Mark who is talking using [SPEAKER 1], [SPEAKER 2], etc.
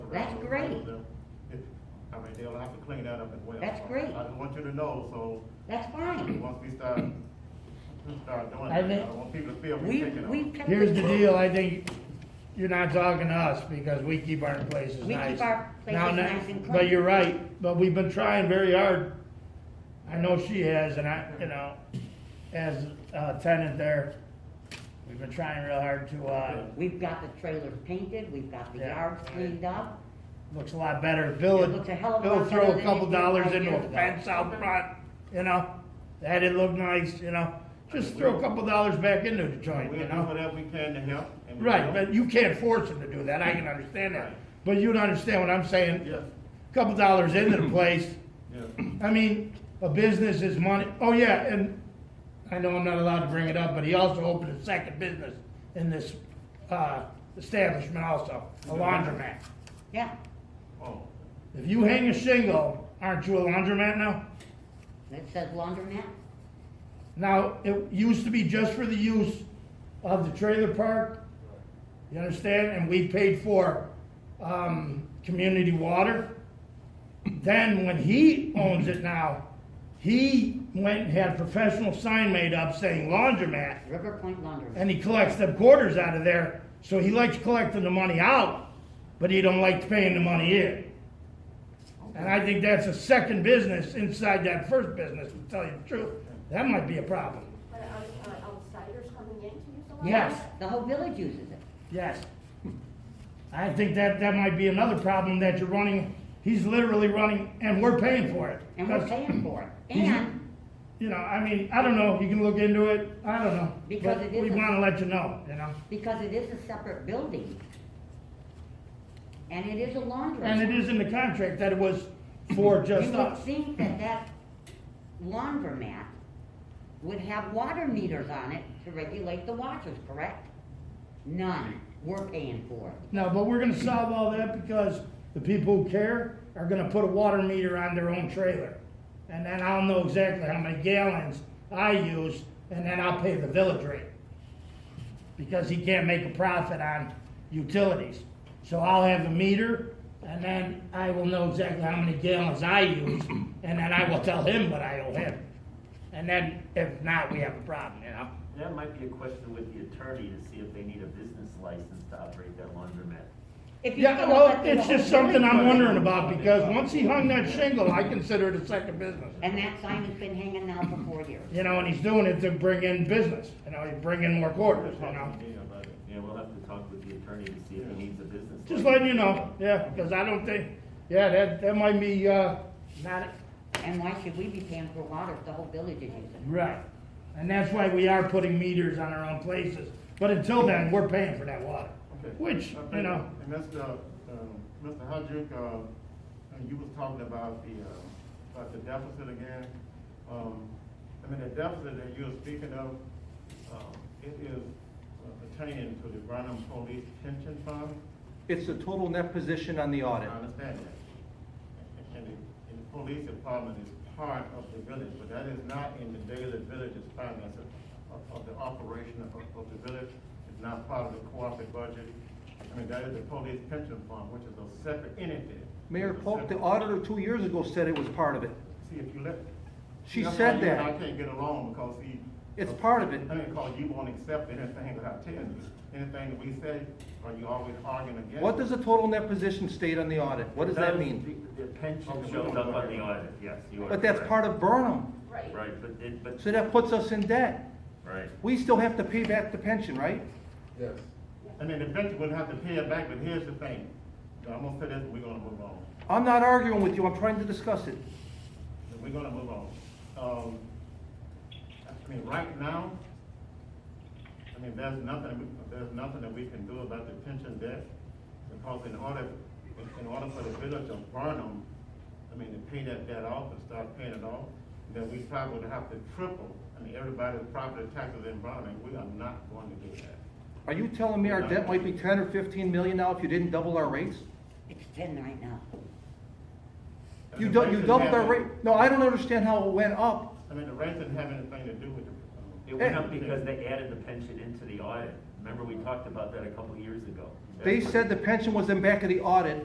[SPEAKER 1] That's great.
[SPEAKER 2] If- I mean, they'll have to clean that up as well.
[SPEAKER 1] That's great.
[SPEAKER 2] I just want you to know, so,
[SPEAKER 1] That's fine.
[SPEAKER 2] once we start, start doing
[SPEAKER 3] I
[SPEAKER 2] that, I
[SPEAKER 3] think-
[SPEAKER 2] don't want people to feel
[SPEAKER 1] We,
[SPEAKER 2] we're picking on.
[SPEAKER 1] we.
[SPEAKER 2] them.
[SPEAKER 1] pick-
[SPEAKER 3] Here's the deal, I think you're not talking to us because we keep our places
[SPEAKER 1] We keep
[SPEAKER 3] nice.
[SPEAKER 1] our places
[SPEAKER 3] Now, na-
[SPEAKER 1] nice and
[SPEAKER 3] But
[SPEAKER 1] clean.
[SPEAKER 3] you're right, but we've been trying very hard. I know she has and I, you know, as a tenant there, we've been trying real hard to, uh,
[SPEAKER 1] We've got the trailers painted, we've got the
[SPEAKER 3] Yeah.
[SPEAKER 1] yards cleaned up.
[SPEAKER 3] looks a lot better. Bill,
[SPEAKER 1] It looks a hell of a
[SPEAKER 3] Bill
[SPEAKER 1] lot
[SPEAKER 3] throw
[SPEAKER 1] better
[SPEAKER 3] a
[SPEAKER 1] than
[SPEAKER 3] couple
[SPEAKER 1] it did
[SPEAKER 3] dollars
[SPEAKER 1] five
[SPEAKER 3] into
[SPEAKER 1] years
[SPEAKER 3] a
[SPEAKER 1] ago.
[SPEAKER 3] fence out front, you know? That it looked nice, you know? Just throw a couple dollars back into the joint,
[SPEAKER 2] We'll
[SPEAKER 3] you
[SPEAKER 2] do
[SPEAKER 3] know?
[SPEAKER 2] whatever we can to help. and we
[SPEAKER 3] Right,
[SPEAKER 2] will.
[SPEAKER 3] but you can't force them to do that, I can understand that.
[SPEAKER 2] Right.
[SPEAKER 3] But you don't understand what I'm saying?
[SPEAKER 2] Yes,
[SPEAKER 3] A Couple dollars into the place,
[SPEAKER 2] yes.
[SPEAKER 3] I mean, a business is money, oh yeah, and I know I'm not allowed to bring it up, but he also opened a second business in this, uh, establishment also, a laundromat.
[SPEAKER 1] Yeah,
[SPEAKER 2] Oh,
[SPEAKER 3] If you hang a shingle, aren't you a laundromat now?
[SPEAKER 1] it says laundromat.
[SPEAKER 3] Now, it used to be just for the use of the trailer park, you understand, and we paid for, um, community water. Then when he owns it now, he went and had a professional sign made up saying laundromat,
[SPEAKER 1] River Point Laundromat.
[SPEAKER 3] and he collects them quarters out of there, so he likes collecting the money out, but he don't like paying the money in. And I think that's a second business inside that first business, to tell you the truth, that might be a problem,
[SPEAKER 4] But are, are outsiders coming in to use the library?
[SPEAKER 3] yes.
[SPEAKER 1] The whole village uses it.
[SPEAKER 3] Yes. I think that, that might be another problem that you're running, he's literally running, and we're paying for it.
[SPEAKER 1] And we're
[SPEAKER 3] 'Cause,
[SPEAKER 1] paying for it.
[SPEAKER 3] He's-
[SPEAKER 1] And
[SPEAKER 3] You know, I mean, I don't know, you can look into it, I don't know.
[SPEAKER 1] Because
[SPEAKER 3] But
[SPEAKER 1] it
[SPEAKER 3] We
[SPEAKER 1] isn't-
[SPEAKER 3] wanna let you know, you know,
[SPEAKER 1] because it is a separate building. And it is a laundromat.
[SPEAKER 3] and it is in the contract that it was for just
[SPEAKER 1] You would
[SPEAKER 3] us.
[SPEAKER 1] think that that laundromat would have water meters on it to regulate the washers, correct? None, we're paying for it.
[SPEAKER 3] No, but we're gonna solve all that because the people who care are gonna put a water meter on their own trailer. And then I'll know exactly how many gallons I use, and then I'll pay the village rate. Because he can't make a profit on utilities. So I'll have a meter, and then I will know exactly how many gallons I use, and then I will tell him what I owe him. And then if not, we have a problem, you know?
[SPEAKER 5] That might be a question with the attorney to see if they need a business license to operate that laundromat.
[SPEAKER 1] If you're
[SPEAKER 3] Yeah,
[SPEAKER 1] gonna
[SPEAKER 3] well,
[SPEAKER 1] let them
[SPEAKER 3] it's
[SPEAKER 1] hold
[SPEAKER 3] just something I'm
[SPEAKER 5] building.
[SPEAKER 3] wondering about, because once he hung that shingle, I consider it a second business.
[SPEAKER 1] And that sign has been hanging now for four years.
[SPEAKER 3] You know, and he's doing it to bring in business, you know, he's bringing more quarters, you know?
[SPEAKER 2] yeah, but
[SPEAKER 5] Yeah, we'll have to talk with the attorney to see if he needs a business license.
[SPEAKER 3] Just letting you know, yeah, because I don't think, yeah, that, that might be, uh, not,
[SPEAKER 1] And why should we be paying for water if the whole village is using
[SPEAKER 3] right. And that's why we are putting meters on our own places, but until then, we're paying for that water,
[SPEAKER 2] Okay.
[SPEAKER 3] which,
[SPEAKER 2] Okay,
[SPEAKER 3] you know,
[SPEAKER 2] And Mr. um, Mr. Hudrick, uh, uh, you was talking about the, uh, about the deficit again. Um, I mean, the deficit that you were speaking of, um, it is uh, pertaining to the Burnham Police Pension Fund.
[SPEAKER 6] It's the total net position on the
[SPEAKER 2] I
[SPEAKER 6] audit.
[SPEAKER 2] understand that. And the, and the police department is part of the village, but that is not in the daily village's finances of, of the operation of, of the village. It's not part of the cooperative budget. I mean, that is the police pension fund, which is a separate entity.
[SPEAKER 6] Mayor
[SPEAKER 2] It's a
[SPEAKER 6] Polk, the
[SPEAKER 2] separate-
[SPEAKER 6] auditor two years ago said it was part of it.
[SPEAKER 2] See, if you let.
[SPEAKER 6] She
[SPEAKER 2] that's
[SPEAKER 6] said
[SPEAKER 2] why you and
[SPEAKER 6] that.
[SPEAKER 2] I can't get along because he.
[SPEAKER 6] It's part of it.
[SPEAKER 2] I mean, because you won't accept anything that I tell you, anything that we say, or you always arguing against.
[SPEAKER 6] What
[SPEAKER 2] it.
[SPEAKER 6] does the total net position state on the audit? What does that mean?
[SPEAKER 5] The the pension shows up on the audit, yes, you are.
[SPEAKER 6] But that's part of Burnham,
[SPEAKER 4] Right.
[SPEAKER 5] Right, but it, but,
[SPEAKER 6] so that puts us in debt.
[SPEAKER 5] right.
[SPEAKER 6] We still have to pay back the pension, right?
[SPEAKER 7] Yes.
[SPEAKER 2] And then the vendor would have to pay it back, but here's the thing, I'm gonna say this, we're gonna move on,
[SPEAKER 6] I'm not arguing with you, I'm trying to discuss it.
[SPEAKER 2] we're gonna move on. Um, I mean, right now, I mean, there's nothing, we- there's nothing that we can do about the pension debt, because in order, in- in order for the village of Burnham, I mean, to pay that debt off and start paying it off, then we probably would have to triple, I mean, everybody's property taxes in Burnham, and we are not going to do that.
[SPEAKER 6] Are you telling me our debt might be ten or fifteen million now if you didn't double our rates?
[SPEAKER 1] It's ten right now.
[SPEAKER 6] You dou- you doubled our rate, no, I don't understand how it went up.
[SPEAKER 2] I mean, the rate didn't have anything to do with the. um,
[SPEAKER 5] It went up because they added the pension into the audit. Remember, we talked about that a couple years ago.
[SPEAKER 6] They said the pension was in back of the audit,